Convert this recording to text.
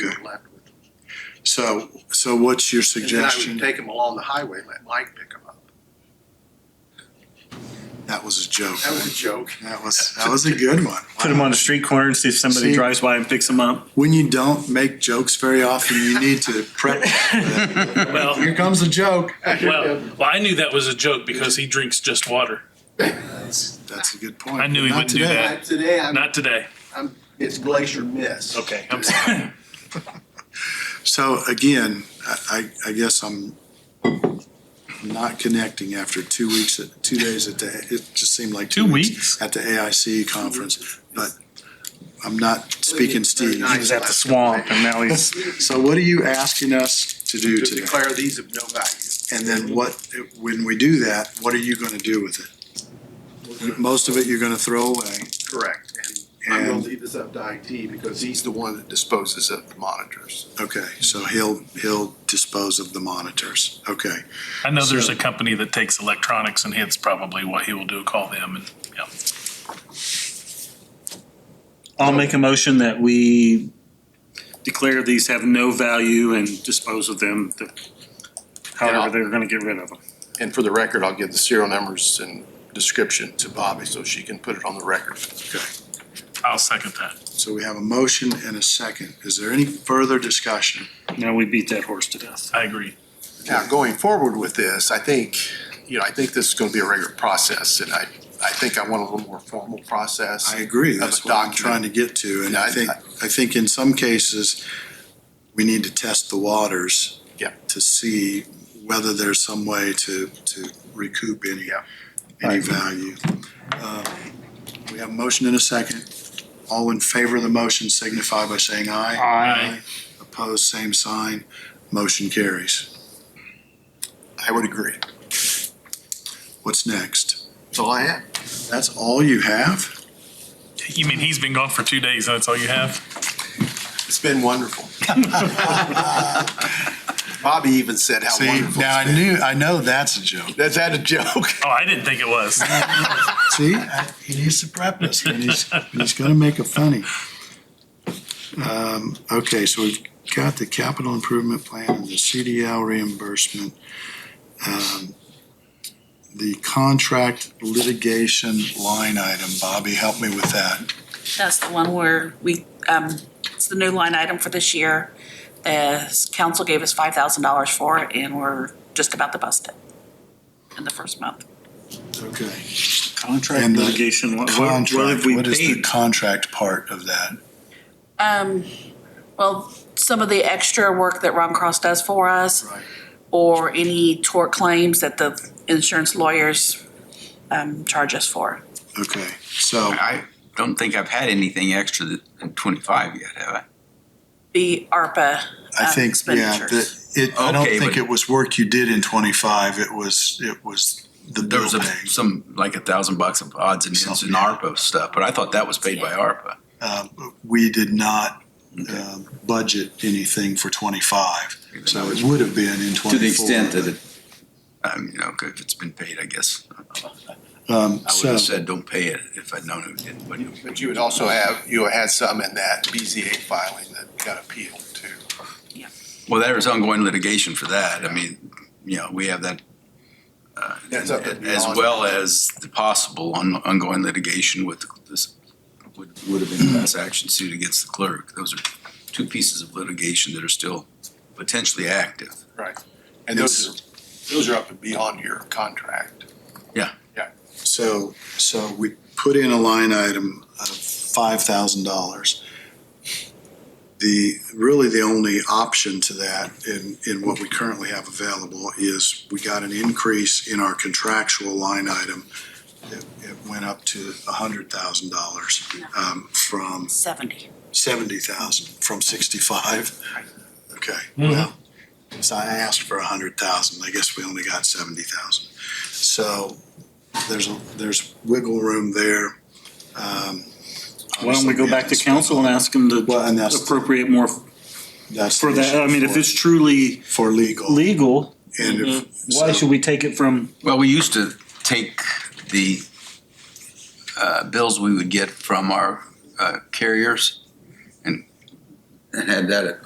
So, so what's your And then I would suggestion? take them along the highway, and let Mike pick them up. That was a joke. That was a joke. That was, that was a good one. Put them on the street corner and see if somebody See? drives by and picks them up. When you don't make jokes very often, you need to prep. Well, Here comes a joke. well, well, I knew that was a joke because he drinks just water. That's, that's a good point. I knew he Not wouldn't do today. Uh, that. Today, I'm, Not today. I'm, it's Glacier Miss. Okay, I'm sorry. So again, I, I I guess I'm not connecting after two weeks, at two days at the, it just seemed like. Two weeks? At the AIC conference, but I'm not speaking Steve. He was at the swamp and now he's. So what are you asking us to do To today? declare these of no value. And then what, when we do that, what are you gonna do with it? Most of it you're gonna throw away. Correct. And I'm And- gonna leave this up to IT because he's the one that disposes of the monitors. Okay, so he'll, he'll dispose of the monitors. Okay. I know there's a company that takes electronics and hits probably what he will do, call them and, yeah. I'll make a motion that we declare these have no value and dispose of them. that- However, they're gonna get rid of them. And for the record, I'll give the serial numbers and description to Bobby so she can put it on the record. I'll second that. So we have a motion and a second. Is there any further discussion? Now we beat that horse to death. I agree. Now, going forward with this, I think, you know, I think this is gonna be a regular process and I, I think I want a little more formal process. I agree, Of a that's what I'm document. trying to get to, and Yeah, I I- think, I think in some cases, we need to test the waters. Yeah. To see whether there's some way to, to recoup any, Yeah. any value. Uh, We have a motion and a second. All in favor of the motion signify by saying aye. Aye. Opposed, same sign. Motion carries. I would agree. What's next? That's all I have. That's all you have? You mean he's been gone for two days, that's all you have? It's been wonderful. Bobby even said how wonderful it's been. knew, I know that's a joke. That's that a joke? Oh, I didn't think it was. See, I- he needs to prep us, and he's, and he's gonna make a funny. Um, okay, so we've got the capital improvement plan and the CDL reimbursement. Um, The contract litigation line item, Bobby, help me with that. That's the one where we, um, it's the new line item for this year. The council gave us five thousand dollars for it and we're just about to bust it in the first month. Okay. Contract And the litigation. What, what what Contract, have we what is the paid? contract part of that? Um, well, some of the extra work that Ron Cross does for us Right. or any tort claims that the insurance lawyers, um, charge us for. Okay, so, I don't think I've had anything extra th- than twenty-five yet, have The ARPA, I um, think, yeah, that, expenditures. it, I don't Okay, think but- it was work you did in twenty-five, it was, it was the I? There bill was a, paying. some, like a thousand bucks of odds and ends and Something. ARPA stuff, but I thought that was paid by ARPA. Uh, we did not uh, budget anything for twenty-five, so it would have been in twenty-four. To the extent that it, um, you know, 'cause if it's been paid, I guess, I Um, would so, have said, don't pay it if I'd known it didn't. but it- But you would also have, you had some in that BZA filing that got appealed too. Well, there was ongoing litigation for that. I mean, you know, we have that. uh, That's up and As beyond. well as the possible on, ongoing litigation with this, would, would have been a class action suit against the clerk. Those are two pieces of litigation that are still potentially active. Right. And those, are those are up and beyond your contract. so, so we put in a line item of five thousand dollars. The, really the only option to that in, in what we currently have available is we got an increase in our contractual line item. It, it went up to a hundred thousand dollars, um, from seventy. seventy thousand from sixty-five. Okay, well, so I asked for a hundred thousand, I guess we only got seventy thousand. So there's, a there's wiggle room there. Um, Why don't we go back to council and ask them to Well, and that's- appropriate more That's the for that? I mean, if issue it's truly For for legal, legal, and if, why should we take it from Well, we used to take the uh, bills we would get from our uh, carriers and and had that at